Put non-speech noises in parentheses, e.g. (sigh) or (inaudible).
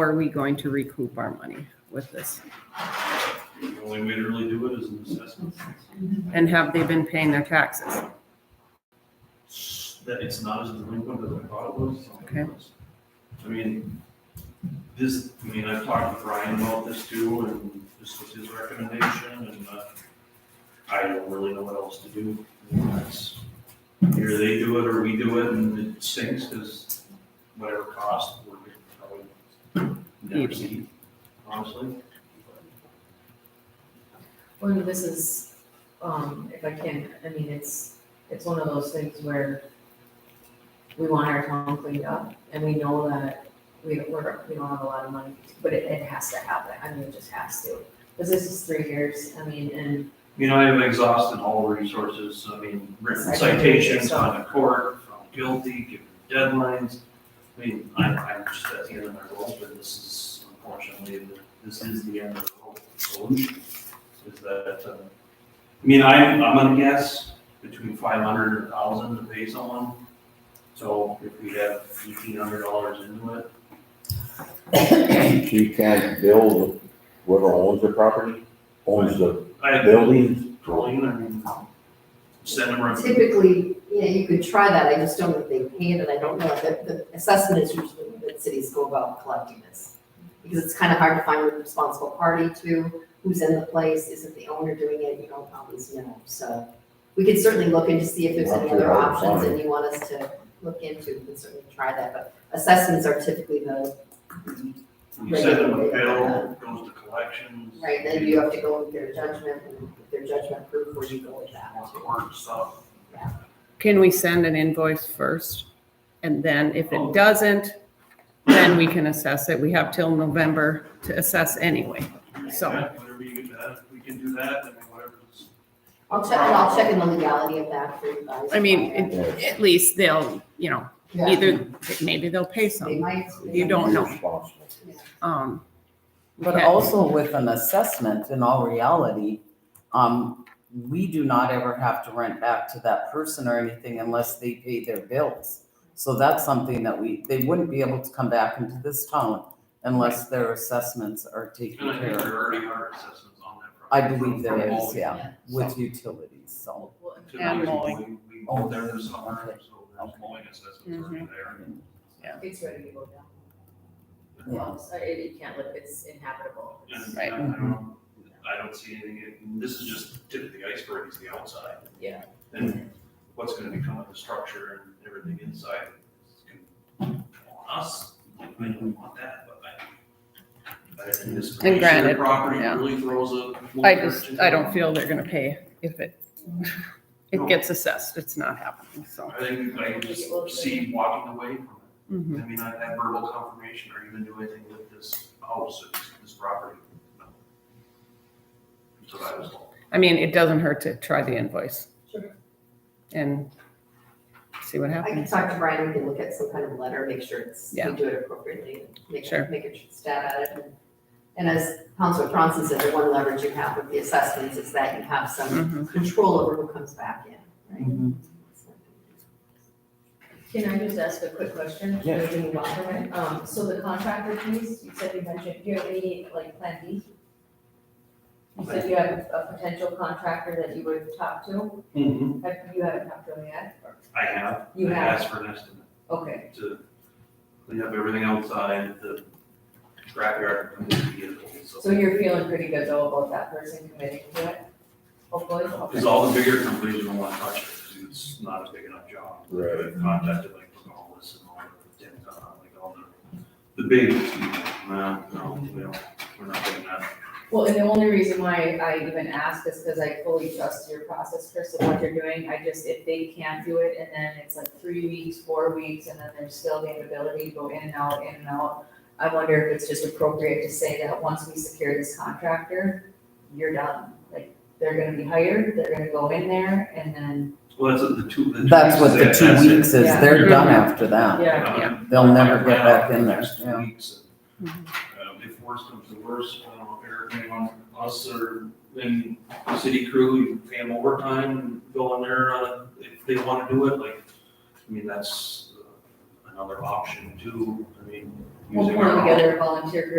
are we going to recoup our money with this? The only way to really do it is an assessment. And have they been paying their taxes? That it's not as delinquent as I thought it was. Okay. I mean, this, I mean, I've talked to Brian about this too, and this was his recommendation, and uh, I don't really know what else to do. That's- Either they do it or we do it, and it stinks, because whatever cost, we're probably never see, honestly. Well, this is, um, if I can, I mean, it's, it's one of those things where we want our town cleaned up and we know that we, we're, we don't have a lot of money, but it, it has to happen. I mean, it just has to. Cause this is three years, I mean, and You know, I have exhausted all resources, I mean, written citations on the court, found guilty, given deadlines. I mean, I, I'm just at the end of my rope, and this is unfortunately, the- this is the end of the rope solution. Is that, uh, I mean, I'm, I'm gonna guess between five hundred and thousand to pay someone. So if we have eighteen hundred dollars into it, (clears throat) She can't build, whoever owns the property, owns the I have building. Colleen, I mean, send them a Typically, you know, you could try that, I just don't think they can, and I don't know, the, the assessment is usually that cities go about collecting this. Because it's kind of hard to find the responsible party to, who's in the place, is it the owner doing it, you don't always know, so. We could certainly look into see if there's any other options that you want us to look into, we can certainly try that, but assessments are typically the, You send them a bill, it goes to collections. right, then you have to go with their judgment, and if their judgment proof where you go with that. All the work stuff. Can we send an invoice first? And then if it doesn't, then we can assess it. We have till November to assess anyway. So- Yeah, Whatever you get that, we can do that, I mean, whatever's. I'll check, I'll check in the legality of that for you guys. I mean, Yeah. it- At least they'll, you know, Yeah. either, maybe they'll pay They some. might. You don't know. Responsible. Um, But Okay. also with an assessment, in all reality, um, we do not ever have to rent back to that person or anything unless they pay their bills. So that's something that we, they wouldn't be able to come back into this town unless their assessments are And taken I care think of there already are assessments on that. I property believe from- there from is, all- yeah, Yeah. with utilities, so. to the And people mowing. We we mow there this summer, Okay. so there's Okay. mowing assessments already there. it's ready to go down. Yeah. So it, you can't live, it's inhabitable. And Right. I don't, I don't see anything, and this is just tip of the iceberg, is the outside. Yeah. And what's gonna become of the structure and everything inside is gonna fall on us, I don't want that, but I. I think this And granted, Property yeah. really throws a. I just, I don't feel they're gonna pay if it, No. it gets assessed. It's not happening, so. I think I can just see walking away from it. mhm. I mean, I've had verbal confirmation, are you gonna do anything with this house, or this- this property? No. So that was all. I mean, it doesn't hurt to try the invoice. Sure. And see what I can happens. talk to Brian, we can look at some kind of letter, make sure it's, we Yeah. do it appropriately, make Sure. sure, make a stab at it. and- And as Councilor Bronson said, the one leverage you have with the assessments is that you have some Mhm. control over who comes back in, right? Mm-hmm. Can I just ask a quick question? Yeah. Maybe move on from it. Um, so the contractor piece, you said you mentioned, do you have any, like, plan B? You said you have a potential contractor that you would talk to, Have- you haven't talked to him yet? I have. You I have. Asked for an estimate Okay, to clean up everything outside, the scrapyard, and the vehicles, so so. you're feeling pretty good though about that person committing to it? Hopefully, okay. Cause all the bigger companies don't wanna touch it, cause it's not a big enough job. Right. I've Contacted like Pocahontas and all the, and, uh, like all the, the big, no, no, we don't, we're not doing that. Well, and the only reason why I even ask is because I fully trust your process, Chris, of what you're doing. I just, if they can't do it, and then it's like three weeks, four weeks, and then there's still the inability to go in and out, in and out. I wonder if it's just appropriate to say that once we secure this contractor, you're done. Like, they're gonna be hired, they're gonna go in there, and then, Well, that's the two. the two That's what the weeks, two that's it. weeks is, Yeah. they're done Mhm. after that. yeah, Yeah. They'll never get back in there, Next two yeah. weeks, and, um, If worse comes to worse, I don't know, Eric, anyone, us or then the city crew, you pay them overtime, and go in there, uh, if they wanna do it, like, I mean, that's uh, another option too, I mean, using We'll our put together a volunteer group